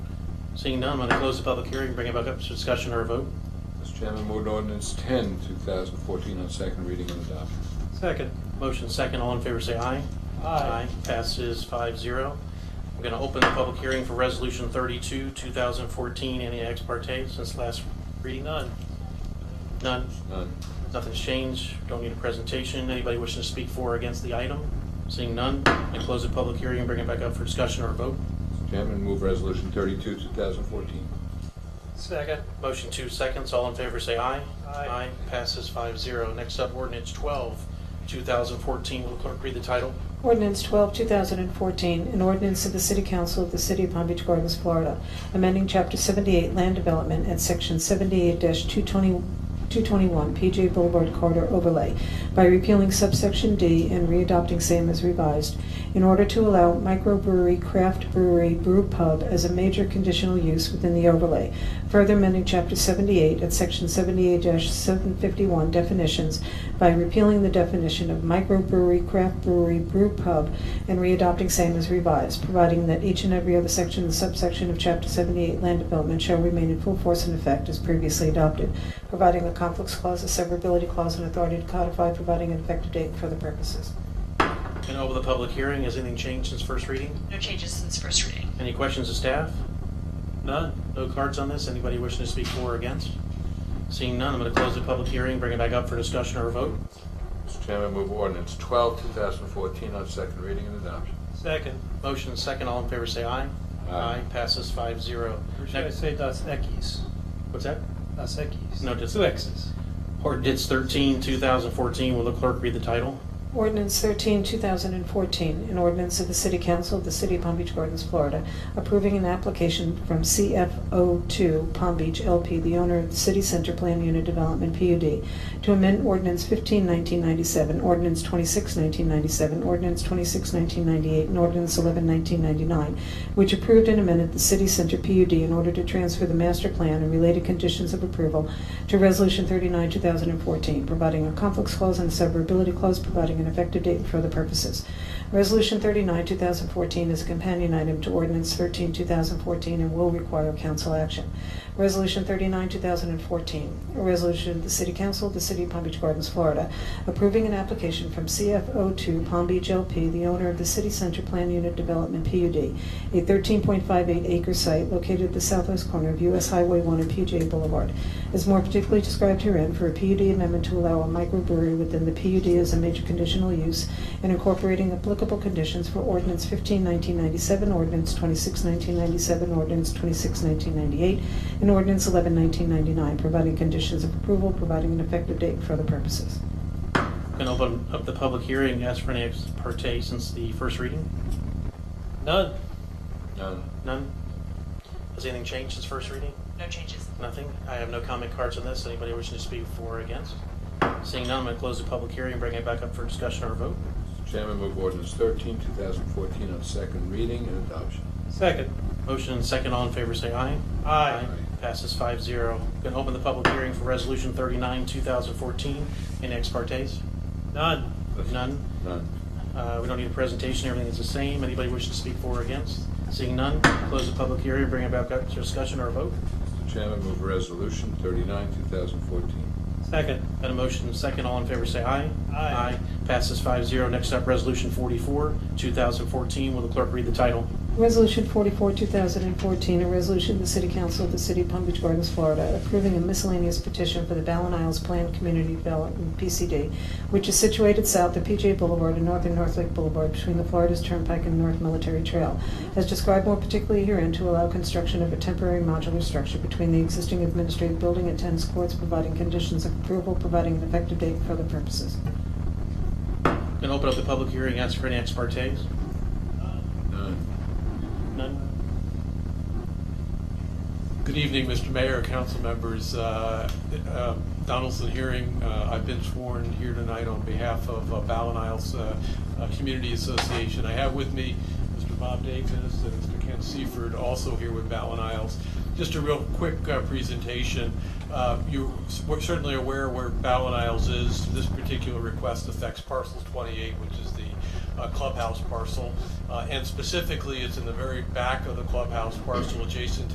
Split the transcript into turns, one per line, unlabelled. Seeing none, I'm going to close the public hearing, bring it back up for discussion or a vote.
Mr. Chairman, move to ordinance 10, 2014, on second reading and adoption.
Second.
Motion second, all in favor say aye.
Aye.
Passes five zero. I'm going to open the public hearing for Resolution 32, 2014. Any ex parte since last reading? None. None?
None.
Nothing's changed. Don't need a presentation. Anybody wishing to speak for or against the item? Seeing none, I close the public hearing and bring it back up for discussion or a vote.
Mr. Chairman, move resolution 32, 2014.
Second.
Motion two seconds, all in favor say aye.
Aye.
passes five zero. Next up, ordinance 12, 2014. Will the clerk read the title?
Ordinance 12, 2014, an ordinance of the City Council of the City of Palm Beach Gardens, Florida, amending Chapter 78 Land Development at Section 78-221 PJ Boulevard Corridor Overlay by repealing subsection D and readopting same as revised in order to allow microbrewery, craft brewery, brew pub as a major conditional use within the overlay. Further amending Chapter 78 at Section 78-751 definitions by repealing the definition of microbrewery, craft brewery, brew pub, and readopting same as revised, providing that each and every other section and subsection of Chapter 78 land development shall remain in full force and effect as previously adopted, providing a conflicts clause, a severability clause, and authority to codify, providing an effective date for the purposes.
And over the public hearing, has anything changed since first reading?
No changes since first reading.
Any questions of staff? None? No cards on this? Anybody wishing to speak for or against? Seeing none, I'm going to close the public hearing, bring it back up for discussion or a vote.
Mr. Chairman, move ordinance 12, 2014, on second reading and adoption.
Second.
Motion second, all in favor say aye.
Aye.
passes five zero.
Or should I say das Equis?
What's that?
Das Equis.
No, just-
Two X's.
Ordinance 13, 2014. Will the clerk read the title?
Ordinance 13, 2014, an ordinance of the City Council of the City of Palm Beach Gardens, Florida, approving an application from CFO2 Palm Beach LP, the owner of the City Center Plan Unit Development PUD, to amend Ordinance 15, 1997, Ordinance 26, 1997, Ordinance 26, 1998, and Ordinance 11, 1999, which approved and amended the City Center PUD in order to transfer the master plan and related conditions of approval to Resolution 39, 2014, providing a conflicts clause and a severability clause, providing an effective date for the purposes. Resolution 39, 2014 is a companion item to Ordinance 13, 2014, and will require council action. Resolution 39, 2014, a resolution of the City Council of the City of Palm Beach Gardens, Florida, approving an application from CFO2 Palm Beach LP, the owner of the City Center Plan Unit Development PUD, a 13.58 acre site located at the southwest corner of US Highway 1 and PJ Boulevard, is more particularly described herein for a PUD amendment to allow a microbrewery within the PUD as a major conditional use and incorporating applicable conditions for ordinance 15, 1997, ordinance 26, 1997, ordinance 26, 1998, and ordinance 11, 1999, providing conditions of approval, providing an effective date for the purposes.
Can open up the public hearing, ask for any ex parte since the first reading?
None.
None.
None? Has anything changed since first reading?
No changes.
Nothing? I have no comment cards on this. Anybody wishing to speak for or against? Seeing none, I'm going to close the public hearing, bring it back up for discussion or vote.
Mr. Chairman, move ordinance 13, 2014, on second reading and adoption.
Second.
Motion and second, all in favor say aye.
Aye.
Passes five zero. Going to open the public hearing for Resolution 39, 2014. Any ex partes?
None.
None?
None.
Uh, We don't need a presentation, everything is the same. Anybody wishing to speak for or against? Seeing none, close the public hearing, bring it back up to discussion or a vote.
Mr. Chairman, move resolution 39, 2014.
Second.
Got a motion and a second, all in favor say aye.
Aye.
Passes five zero. Next up, Resolution 44, 2014. Will the clerk read the title?
Resolution 44, 2014, a resolution of the City Council of the City of Palm Beach Gardens, Florida, approving a miscellaneous petition for the Ballin Isles Planned Community Development, PCD, which is situated south of PJ Boulevard and northern North Lake Boulevard between the Florida's Turnpike and North Military Trail, as described more particularly herein to allow construction of a temporary modular structure between the existing administrative building and tennis courts, providing conditions of approval, providing an effective date for the purposes.
Going to open up the public hearing, ask for any ex partes?
None.
None?
Good evening, Mr. Mayor, council members. Uh, uh, Donaldson Hearing, uh, I've been sworn here tonight on behalf of uh, Ballin Isles uh, uh, Community Association. I have with me Mr. Bob Davis and Mr. Ken Seifert, also here with Ballin Isles. Just a real quick uh, presentation. Uh, You're certainly aware where Ballin Isles is. This particular request affects parcel 28, which is the uh, clubhouse parcel. Uh, And specifically, it's in the very back of the clubhouse parcel, adjacent to